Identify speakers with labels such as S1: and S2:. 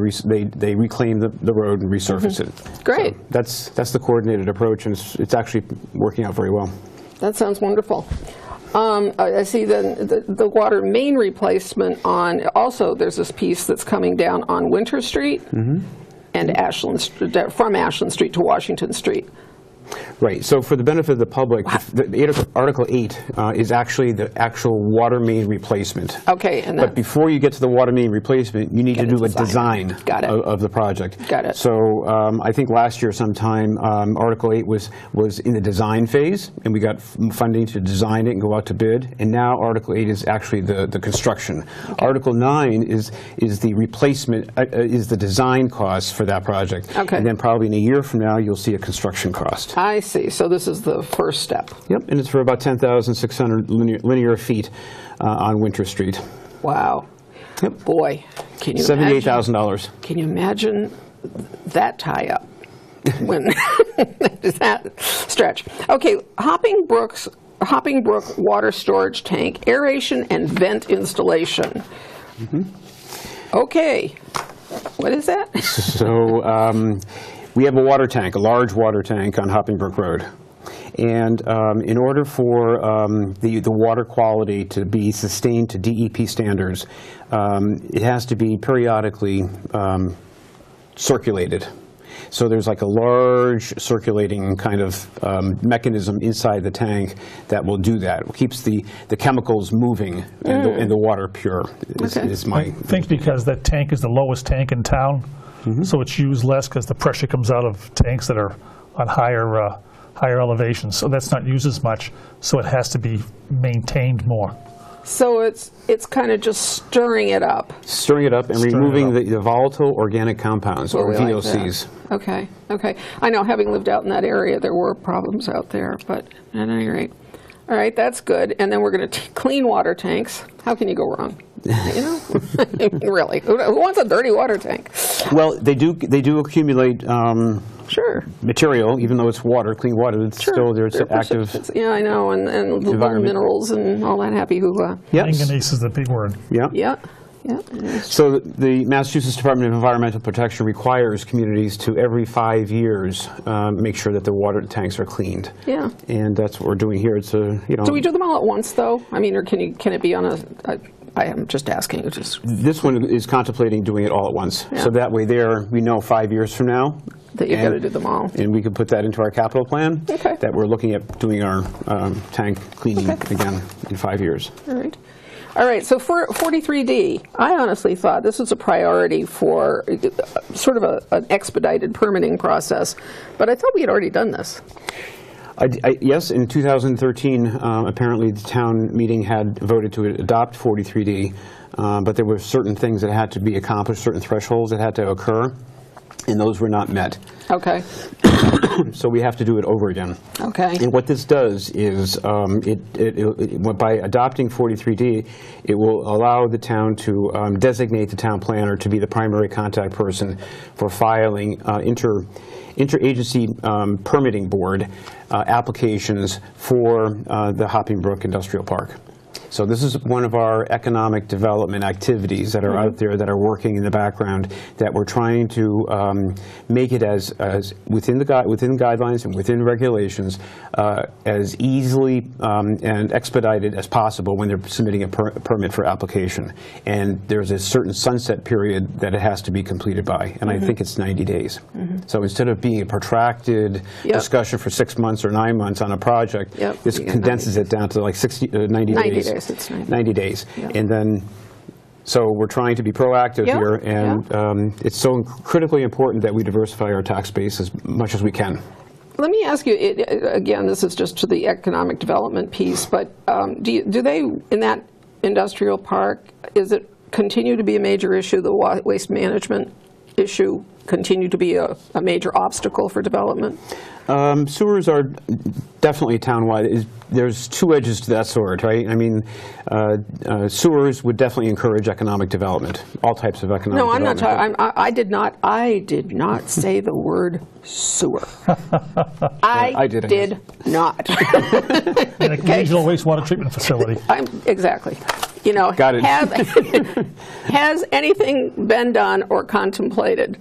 S1: re- They, they reclaim the, the road and resurface it.
S2: Great.
S1: So That's, that's the coordinated approach, and it's, it's actually working out very well.
S2: That sounds wonderful. Um, I I see then the the water main replacement on, also, there's this piece that's coming down on Winter Street
S1: Mm-hmm.
S2: and Ashland, St- uh, from Ashland Street to Washington Street.
S1: Right, so for the benefit of the public, the- the Article- Article 8 uh, is actually the actual water main replacement.
S2: Okay, and
S1: But
S2: then,
S1: before you get to the water main replacement, you need to
S2: Get a
S1: do a
S2: design.
S1: design
S2: Got it.
S1: of of the project.
S2: Got it.
S1: So um, I think last year sometime, um, Article 8 was, was in the design phase, and we got f- funding to design it and go out to bid, and now Article 8 is actually the, the construction. Article 9 is, is the replacement, uh, uh, is the design cost for that project.
S2: Okay.
S1: And then probably in a year from now, you'll see a construction cost.
S2: I see, so this is the first step.
S1: Yep, and it's for about 10,600 linear- linear feet uh, on Winter Street.
S2: Wow.
S1: Yep.
S2: Boy, can you imagine?
S1: $78,000.
S2: Can you imagine that tie-up? When, does that stretch? Okay, Hopping Brook's, Hopping Brook Water Storage Tank, aeration and vent installation. Okay, what is that?
S1: So um, we have a water tank, a large water tank on Hopping Brook Road. And um, in order for um, the, the water quality to be sustained to DEP standards, um, it has to be periodically um, circulated. So there's like a large circulating kind of um, mechanism inside the tank that will do that. It keeps the, the chemicals moving and, the, and the water pure, is,
S2: Okay.
S1: is my
S3: I think because that tank is the lowest tank in town, so it's used less because the pressure comes out of tanks that are on higher, uh, higher elevations. So that's not used as much, so it has to be maintained more.
S2: So it's, it's kind of just stirring it up.
S1: stirring it up and
S3: Stirring it
S1: removing
S3: up.
S1: the, the volatile organic compounds,
S2: Well,
S1: or
S2: we like that.
S1: VOCs.
S2: Okay, okay. I know, having lived out in that area, there were problems out there, but at any rate. All right, that's good. And then we're going to clean water tanks. How can you go wrong? You know, I mean, really, who who wants a dirty water tank?
S1: Well, they do they do accumulate um,
S2: Sure.
S1: material, even though it's water, clean water. It's
S2: sure.
S1: still there's
S2: They're
S1: active.
S2: precipitates. Yeah, I know, and, and the little
S1: Environment.
S2: minerals and all that happy hoo-ha.
S1: Yes.
S3: Manganese is the big word.
S1: Yeah.
S2: Yeah, yeah. it is.
S1: So the Massachusetts Department of Environmental Protection requires communities to every five years um, make sure that their water tanks are cleaned.
S2: Yeah.
S1: And that's what we're doing here. It's a you know.
S2: Do we do them all at once, though? I mean, or can you, can it be on a, I- I am just asking, it's just
S1: This one is contemplating doing it all at once. So that way there, we know five years from now.
S2: That you're
S1: and-
S2: gonna do them all.
S1: And we could put that into our capital plan.
S2: Okay.
S1: That we're looking at doing our um, tank cleaning
S2: Okay.
S1: again in five years.
S2: All right. All right, so for 43D, I honestly thought this was a priority for uh, sort of a- an expedited permitting process, but I thought we had already done this.
S1: I- I- Yes, in 2013, um, apparently the town meeting had voted to adopt 43D, uh, but there were certain things that had to be accomplished, certain thresholds that had to occur, and those were not met.
S2: Okay,
S1: So we have to do it over again.
S2: okay.
S1: And what this does is, um, it, it, it- what- by adopting 43D, it will allow the town to um, designate the town planner to be the primary contact person for filing uh, inter, interagency um, permitting board uh, applications for uh, the Hopping Brook Industrial Park. So this is one of our economic development activities that are
S2: Mm-hmm.
S1: out there that are working in the background that we're trying to um, make it as, as within the gui- within guidelines and within regulations uh, as easily um, and expedited as possible when they're submitting a per- permit for application. And there's a certain sunset period that it has to be completed by, and
S2: Mm-hmm.
S1: I think it's 90 days. So instead of being a protracted
S2: Yep.
S1: discussion for six months or nine months on a project,
S2: Yep,
S1: this
S2: you get 90
S1: condenses it down to like 60, uh, 90
S2: 90
S1: days.
S2: days, it's 90.
S1: 90 days.
S2: Yeah.
S1: And then, so we're trying to be proactive
S2: Yeah,
S1: here, and um, it's so critically important that we diversify our tax base as much as we can.
S2: Let me ask you, it- it- again, this is just to the economic development piece, but um, do you- do they, in that industrial park, is it continue to be a major issue, the wa- waste management issue continue to be a a major obstacle for development?
S1: Um, Sewers are definitely townwide. Is- There's two edges to that sword, right? I mean, uh, uh, sewers would definitely encourage economic development, all types of economic
S2: No, I'm
S1: development.
S2: not talking, I'm- I, I did not, I did not say the word sewer. I
S1: I didn't.
S2: did not.
S3: And a Regional wastewater treatment facility.
S2: I'm, exactly. you know.
S1: Got it.
S2: have- Has anything been done or contemplated